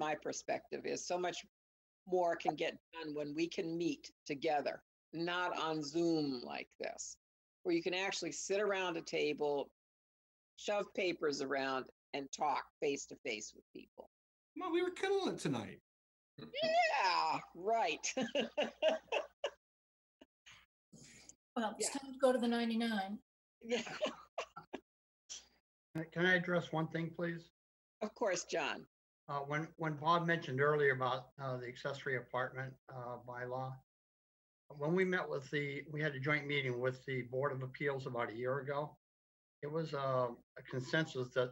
my perspective is so much more can get done when we can meet together, not on Zoom like this, where you can actually sit around a table, shove papers around, and talk face to face with people. Come on, we were killing it tonight. Yeah, right. Well, it's Yeah. time to go to the 99. yeah, Uh, Can I address one thing, please? of course, John. Uh, when, when Bob mentioned earlier about, uh, the accessory apartment, uh, bylaw, when we met with the, we had a joint meeting with the Board of Appeals about a year ago. It was, uh, a consensus that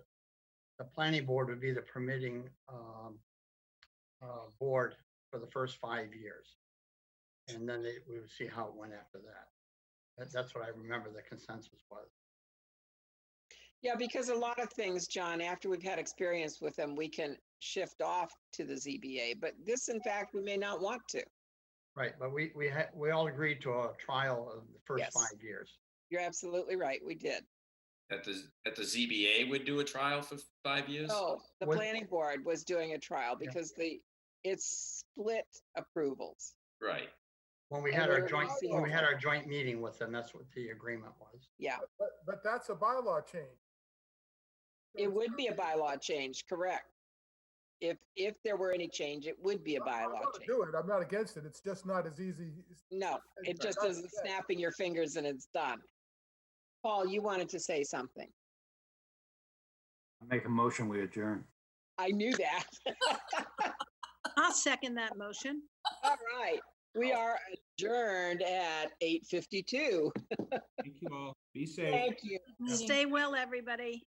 the planning board would be the permitting, um, uh, board for the first five years. And then they, we would see how it went after that. That, that's what I remember the consensus was. Yeah, because a lot of things, John, after we've had experience with them, we can shift off to the ZBA. But this, in fact, we may not want to. Right, but we, we had, we all agreed to a trial of the Yes. first five years. You're absolutely right. We did. That the, that the ZBA would do a trial for five years? Oh, the Was- planning board was doing a trial Yeah. because the, it's split approvals. Right. When we And had our we're joint, seeing when we had that. our joint meeting with them, that's what the agreement was. But, but that's a bylaw change. It would be a bylaw change, correct? If, if there were any change, it would be a I'm bylaw gonna change. Do it, I'm not against it, it's just not as easy. as- No, it just isn't snapping your fingers and it's done. Paul, you wanted to say something. Make a motion, we adjourn. I knew that. I'll second that motion. All right, we are adjourned at eight fifty-two. Thank you all. Be safe. Thank you. Meeting. Stay well, everybody.